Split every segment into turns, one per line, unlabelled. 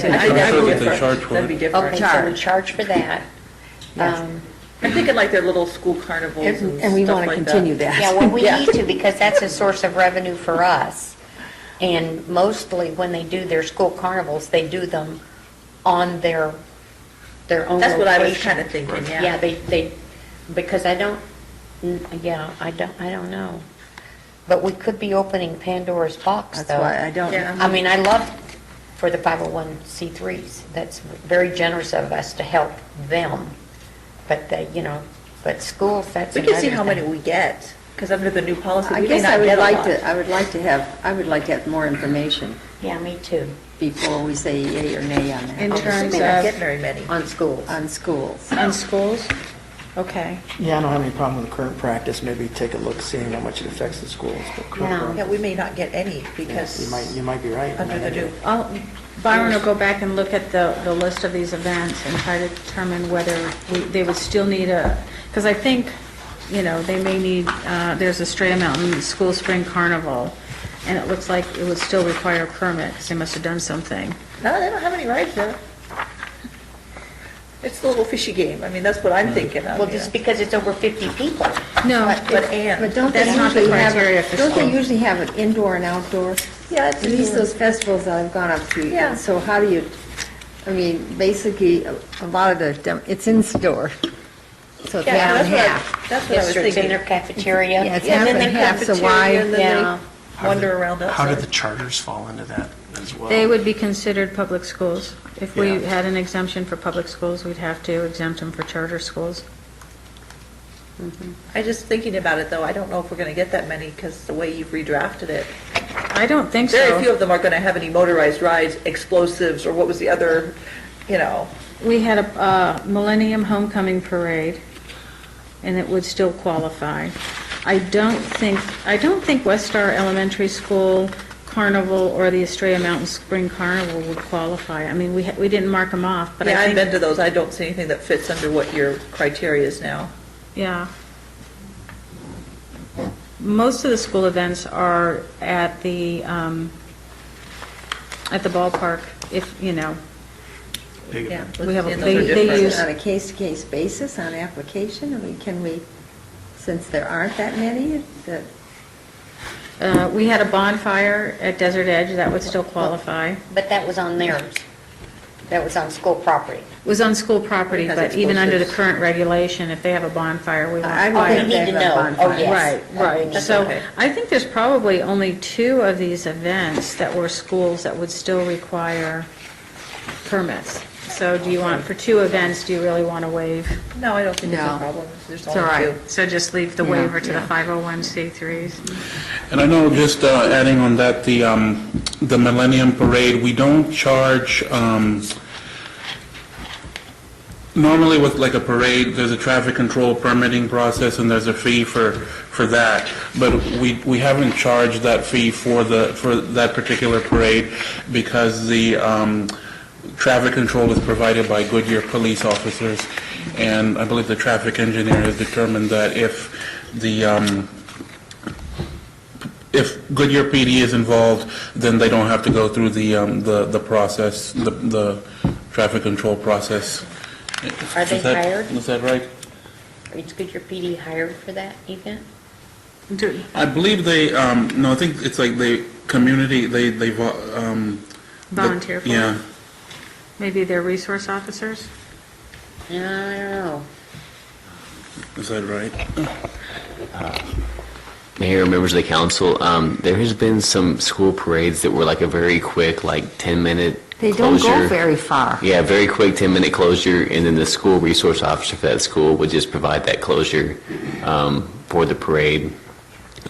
So
I- I
that's
would
what they
prefer-
charge for
That'd be
it.
different.
Okay, so we
charge.
charge for that.
Yes.
Um,
I'm thinking like their little school carnivals and stuff like
And
that.
and we want to continue that.
Yeah, well, we
Yeah.
need to, because that's a source of revenue for us. And mostly, when they do their school carnivals, they do them on their, their own
That's what I was
location.
kinda thinking, yeah.
Yeah, they, they, because I don't, n- yeah, I don't, I don't know. But we could be opening Pandora's box,
That's
though.
why I don't,
Yeah.
I mean, I love for the 501c3s. That's very generous of us to help them. But they, you know, but schools, that's
We can see
another
how many
thing.
we get, because under the new policy,
I
we may
guess I
not
would
get a
like
lot.
to, I would like to have, I would like to have more information
Yeah, me too.
before we say yay or nay on
We
that,
In terms
may not get
of,
very many.
On schools.
on schools.
on schools? Okay.
Yeah, I don't have any problem with the current practice, maybe take a look, seeing how much it affects the schools. but current
Hmm.
Yeah.
Yeah,
practice-
we may not get any
You might,
because
you might be right. You
under
might
the
have to-
new,
I'll- Byron will go back and look at the, the list of these events and try to determine whether we- they would still need a, because I think, you know, they may need, uh, there's a Stray Mountain School Spring Carnival, and it looks like it would still require a permit, because they must have done something.
no, they don't have any rides there. It's a little fishy game. I mean, that's what
Hmm.
I'm thinking of,
Well,
Oh, yeah.
just because it's over 50 people.
No,
But- But Ann,
But don't they
That's not the
usually have,
criteria for
a- don't they
schools.
usually have an indoor and outdoor?
yeah,
At least
it's,
those festivals that I've gone up to,
Yeah.
and so how do you, I mean, basically, a a lot of the, dem- it's in store, so it's
yeah,
half
that's
and
what,
half.
I- that's what I
Yes,
was
sir, it's in their
thinking.
cafeteria.
Yeah, it's
Yeah, and then
half
they
and half, so why-
cafeteria, and
Yeah.
then they wander around
How do
outside.
the charters fall into that as well?
They would be considered public schools. If we
Yeah.
had an exemption for public schools, we'd have to exempt them for charter schools.
I just thinking about it though, I don't know if we're going to get that many because the way you've redrafted it.
I don't think so.
Very few of them are going to have any motorized rides, explosives, or what was the other, you know,
We had a uh, Millennium Homecoming Parade, and it would still qualify. I don't think, I don't think West Star Elementary School Carnival or the Estrella Mountain Spring Carnival would qualify. I mean, we, ha- we didn't mark them off, but
Yeah,
I
I've been
think,
to those, I don't see anything that fits under what your criteria is now.
yeah. Most of the school events are at the, um, at the ballpark, if, you know,
Big
Yeah,
event.
We have a-
and those are
they- they
different.
use-
On a case-to-case basis, on application, I mean, can we, since there aren't that many, that,
uh, we had a bonfire at Desert Edge, that would still qualify.
But that was on theirs. That was on school property.
was on school property,
Because
but
it's
even under the
posted.
current regulation, if they have a bonfire, we
I would think
Oh,
want
we
fire.
they
need to know.
have a
Oh,
bonfire.
Right,
yes.
right.
That's
So
okay.
I think there's probably only two of these events that were schools that would still require permits. So do you want, for two events, do you really want to waive?
No, I don't think it's a
No.
problem, there's
all
only
right.
two.
So just leave the
Yeah,
waiver to the
yeah.
501c3s?
And I know, just uh, adding on that, the, um, the Millennium Parade, we don't charge, um, normally with like a parade, there's a traffic control permitting process and there's a fee for, for that. But we, we haven't charged that fee for the, for that particular parade because the, um, traffic control is provided by Goodyear police officers. And I believe the traffic engineer has determined that if the, um, if Goodyear PD is involved, then they don't have to go through the, um, the, the process, the, the traffic control process.
Are they
Is that-
hired?
Is that right?
Is Goodyear PD hired for that event?
I believe they, um, no, I think it's like the community, they, they, vo- um. the-
Volunteer for it.
Yeah.
Maybe they're resource officers?
No, I don't know.
Is that right?
Mayor, members of the council, um, there has been some school parades that were like a very quick, like 10-minute closure.
They don't go very far.
Yeah, very quick 10-minute closure, and then the school resource officer for that school would just provide that closure um, for the parade,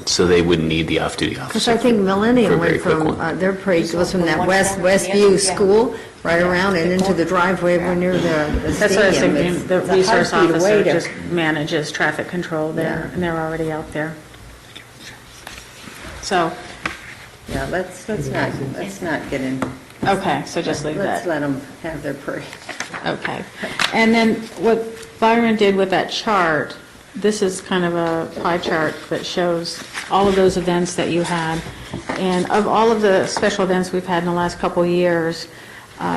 so they wouldn't need the off-duty officer.
Because I think
for- for a
Millennium
very
went
quick
from,
one.
uh, their parade goes from that
From one
west,
corner to the
Westview
other, yeah.
school, right around and into the driveway over near the the stadium.
That's what I was thinking,
It's-
the
it's a
resource
heartbeat away
officer
to-
just manages traffic control there,
Yeah.
and they're already out there. So,
Yeah, let's, let's not, let's not get in,
okay, so just leave
let's
that,
let them have their parade.
okay. And then what Byron did with that chart, this is kind of a pie chart that shows all of those events that you had, and of all of the special events we've had in the last couple of years, uh,